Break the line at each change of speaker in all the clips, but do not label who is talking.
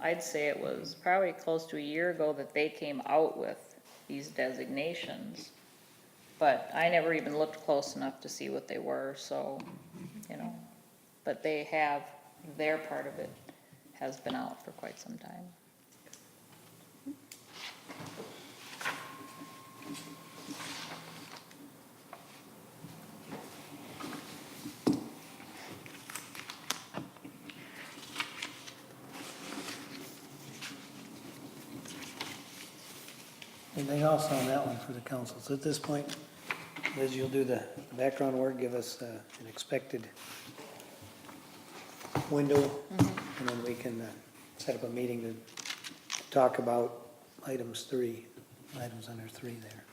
I'd say it was probably close to a year ago that they came out with these designations. But I never even looked close enough to see what they were, so, you know, but they have, their part of it has been out for quite some time.
Anything else on that one for the council? So at this point, Liz, you'll do the background work, give us uh, an expected window, and then we can uh, set up a meeting to talk about items three, items under three there.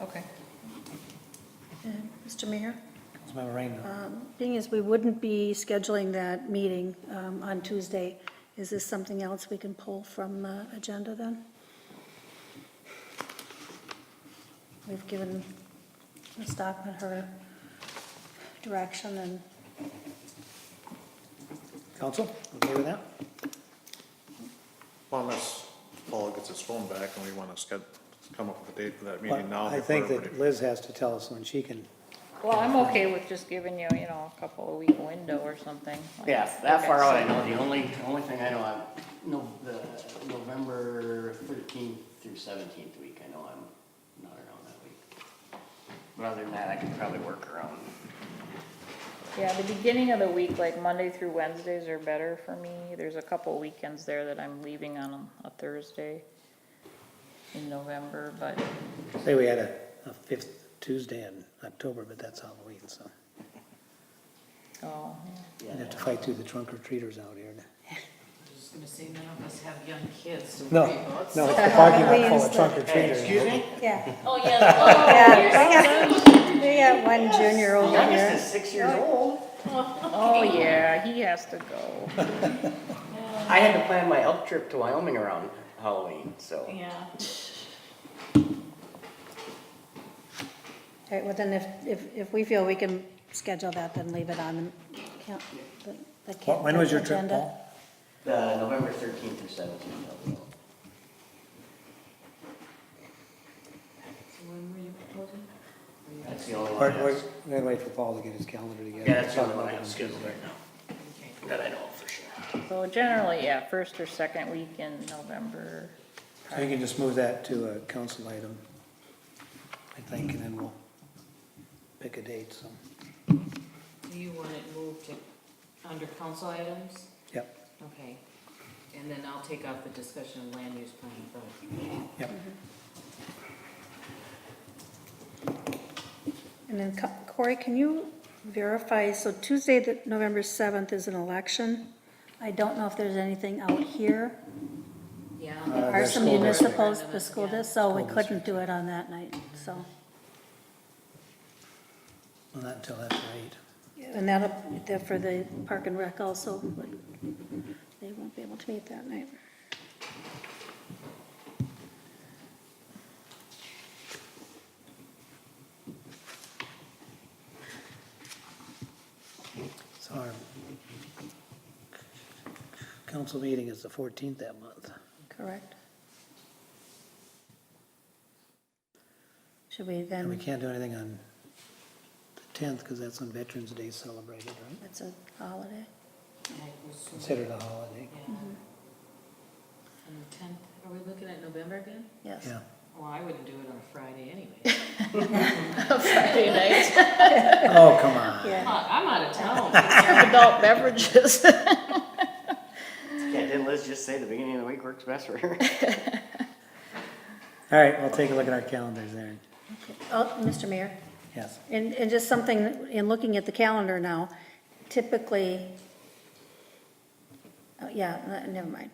Okay.
Mr. Mayor,
Councilmember Rainville,
um, thing is, we wouldn't be scheduling that meeting um, on Tuesday. Is this something else we can pull from the agenda then? We've given Ms. Stockman her direction and
council, okay with that?
Well, unless Paul gets his phone back and we want to sched, come up with a date for that meeting
Well,
now.
I
before
think that
everybody-
Liz has to tell us when she can,
Well, I'm okay with just giving you, you know, a couple of week window or something.
Yeah, that far out,
Okay,
I know, the only, the only thing I know, I'm, no, the November thirteenth through seventeenth week, I know I'm not around that week. But other than that, I could probably work around.
so- Yeah, the beginning of the week, like Monday through Wednesdays are better for me. There's a couple weekends there that I'm leaving on a Thursday in November, but
say we had a a fifth Tuesday in October, but that's Halloween, so
Oh, yeah.
we'd have to fight through the trunk or treaters out here.
I was gonna say, none of us have young kids to
No,
worry about.
no,
so-
it's the parking lot full of trunk or treaters.
Excuse me?
Yeah.
Oh, yeah,
Yeah, we got- we got one junior over
Youngest
there.
is six years old.
Oh, yeah, he has to go.
I had to plan my elk trip to Wyoming around Halloween, so.
the- yeah.
All right, well then, if, if, if we feel we can schedule that, then leave it on the, count- the- the.
Wh- When was your trip,
agenda.
Paul?
The November thirteenth through seventeenth, I'll be out.
So when were you proposing?
that's the only
We're,
one I
we're
have.
we're gonna wait for Paul to get his calendar together.
Yeah, that's the only one I have scheduled right now,
Okay.
that I know of for sure.
So generally, yeah, first or second week in November.
So you can just move that to a council item, I think, and then we'll pick a date, so,
Do you want it moved to, under council items?
yep,
Okay. And then I'll take out the discussion of land use plan from.
yep.
And then Co- Corey, can you verify, so Tuesday, the November 7th is an election. I don't know if there's anything out here. There
Yeah.
are
the
some
Uh, school district.
municipals, the school
Yeah.
district, so we
School
couldn't do it on that night, so.
Well, Not until after eight.
And that'll, that for the park and rec also, but they won't be able to meet that night.
So our council meeting is the fourteenth that month.
Correct. Should we
And we
then,
can't do anything on the tenth, because that's when Veterans Day is celebrated, right?
it's a holiday?
Considered a holiday,
Yeah.
Mm-hmm.
And the tenth, are we looking at November again?
Yes.
yeah.
Well, I wouldn't do it on a Friday anyway.
Friday night,
Oh, come on.
I'm
Yeah,
out- I'm out of town.
adult beverages.
Yeah, didn't Liz just say the beginning of the week works best for her?
All right, we'll take a look at our calendars there,
okay. Oh, Mr. Mayor?
yes.
And, and just something, in looking at the calendar now, typically, oh, yeah, uh, never mind.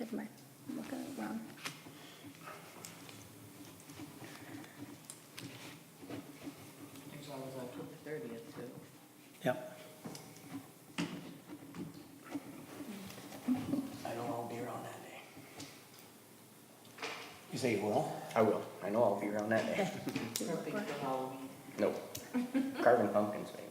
Never mind, I'm looking at it wrong.
There's always October thirtieth too.
Yep.
I know I'll be around that day.
You say you will?
I will. I know I'll be around that day.
Perfect for Halloween. Oh,
Nope. Carving pumpkins, maybe.